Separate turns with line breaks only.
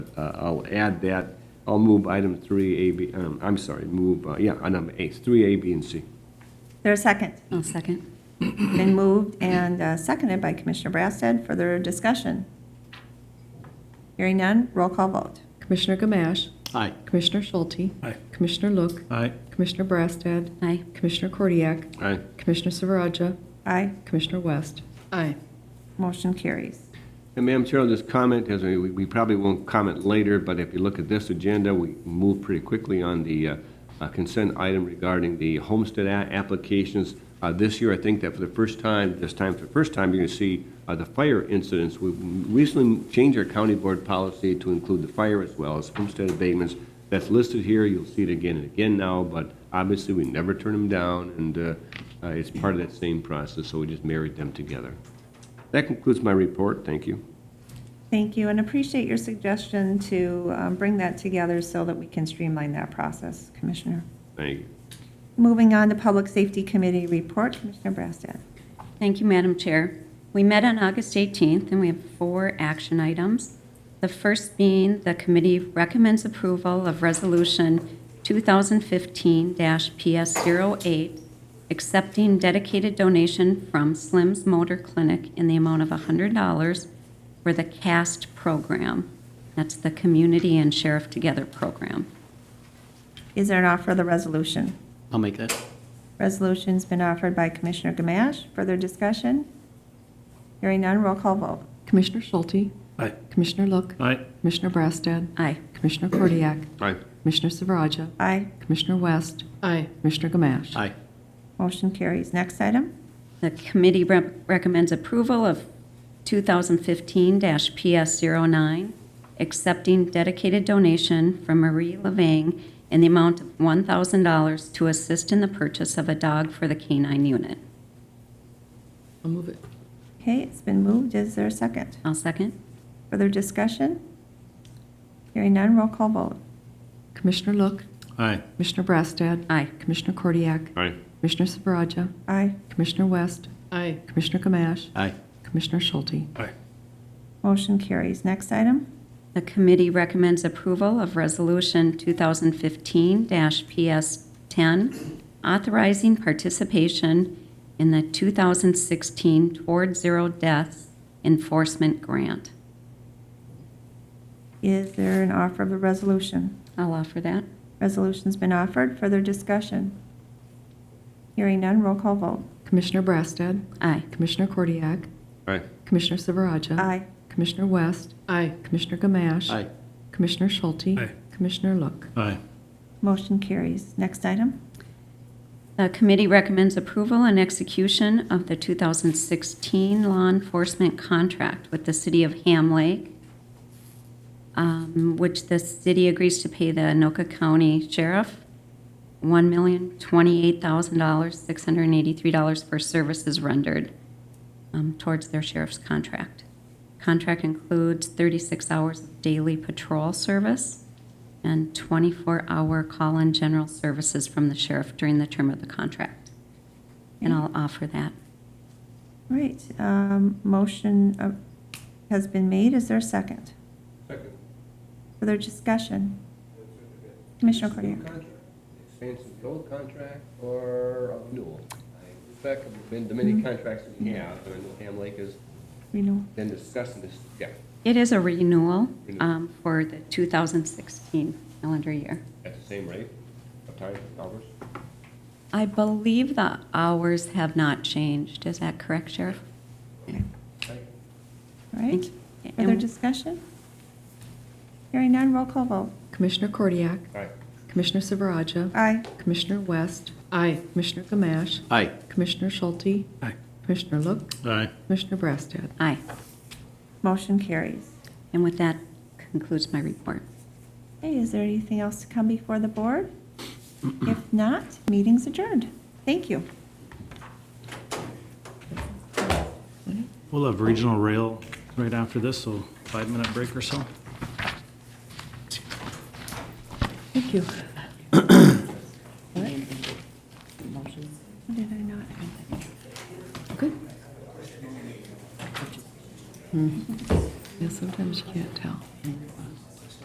Uh, I'll add that, I'll move item three, A, B, um, I'm sorry, move, uh, yeah, uh, number eight, three, A, B, and C.
There a second?
I'll second.
Been moved and uh, seconded by Commissioner Brassad. Further discussion? Hearing none, roll call vote.
Commissioner Gamache.
Aye.
Commissioner Schulte.
Aye.
Commissioner Look.
Aye.
Commissioner Brassad.
Aye.
Commissioner Kordiak.
Aye.
Commissioner Silveraja.
Aye,
Commissioner West.
Aye.
motion carries.
And Madam Chair, I'll just comment, as we, we probably won't comment later, but if you look at this agenda, we move pretty quickly on the uh, uh, consent item regarding the homestead a- applications. Uh, This year, I think that for the first time, this time, for the first time, you're going to see uh, the fire incidents. We recently changed our county board policy to include the fire as well as homestead abatements. That's listed here, you'll see it again and again now, but obviously, we never turn them down, and uh, uh, it's part of that same process, so we just married them together. That concludes my report, thank you.
Thank you, and appreciate your suggestion to um, bring that together so that we can streamline that process, Commissioner.
Thank you.
Moving on to Public Safety Committee report, Commissioner Brassad.
Thank you, Madam Chair. We met on August 18th, and we have four action items. The first being the committee recommends approval of Resolution 2015-PS08, accepting dedicated donation from Slim's Motor Clinic in the amount of $100 for the CAST program. That's the Community and Sheriff Together program.
Is there an offer of the resolution?
I'll make that.
Resolution's been offered by Commissioner Gamache. Further discussion? Hearing none, roll call vote.
Commissioner Schulte.
Aye.
Commissioner Look.
Aye.
Commissioner Brassad.
Aye.
Commissioner Kordiak.
Aye.
Commissioner Silveraja.
Aye,
Commissioner West.
Aye.
Commissioner Gamache.
Aye.
motion carries. Next item?
The committee rep- recommends approval of 2015-PS09, accepting dedicated donation from Marie Levang in the amount of $1,000 to assist in the purchase of a dog for the K-9 unit.
I'll move it.
Okay, it's been moved. Is there a second?
I'll second.
Further discussion? Hearing none, roll call vote.
Commissioner Look.
Aye.
Commissioner Brassad.
Aye.
Commissioner Kordiak.
Aye.
Commissioner Silveraja.
Aye,
Commissioner West.
Aye.
Commissioner Gamache.
Aye.
Commissioner Schulte.
Aye.
motion carries. Next item?
The committee recommends approval of Resolution 2015-PS10, authorizing participation in the 2016 Toward Zero Deaths Enforcement Grant.
Is there an offer of a resolution?
I'll offer that.
Resolution's been offered. Further discussion? Hearing none, roll call vote.
Commissioner Brassad.
Aye.
Commissioner Kordiak.
Aye.
Commissioner Silveraja.
Aye,
Commissioner West.
Aye.
Commissioner Gamache.
Aye.
Commissioner Schulte.
Aye.
Commissioner Look.
Aye.
motion carries. Next item?
The committee recommends approval and execution of the 2016 law enforcement contract with the city of Ham Lake, um, which the city agrees to pay the Anoka County Sheriff $1,028,683 for services rendered um, towards their sheriff's contract. Contract includes 36 hours of daily patrol service and 24-hour call-in general services from the sheriff during the term of the contract. And I'll offer that.
All Right, um, motion uh, has been made, is there a second? Second. Further discussion? Commissioner Cordia?
Expansion of the old contract or a renewal? I respect been the many contracts that we have, and I know Ham Lake has
Renewal,
been discussing this, yeah,
It is a renewal
Renewal.
um, for the 2016 calendar year.
at the same rate of time, dollars?
I believe the hours have not changed. Is that correct, Sheriff?
all right?
Thank you.
Further discussion? Hearing none, roll call vote.
Commissioner Kordiak.
Aye.
Commissioner Silveraja.
Aye,
Commissioner West.
Aye.
Commissioner Gamache.
Aye.
Commissioner Schulte.
Aye.
Commissioner Look.
Aye.
Commissioner Brassad.
Aye.
motion carries.
And with that concludes my report.
Hey, is there anything else to come before the board? If not, meeting's adjourned. Thank you.
We'll have regional rail right after this, so five-minute break or so.
Thank you.
Did I not?
Good. Mm-hmm. Yeah, sometimes you can't tell.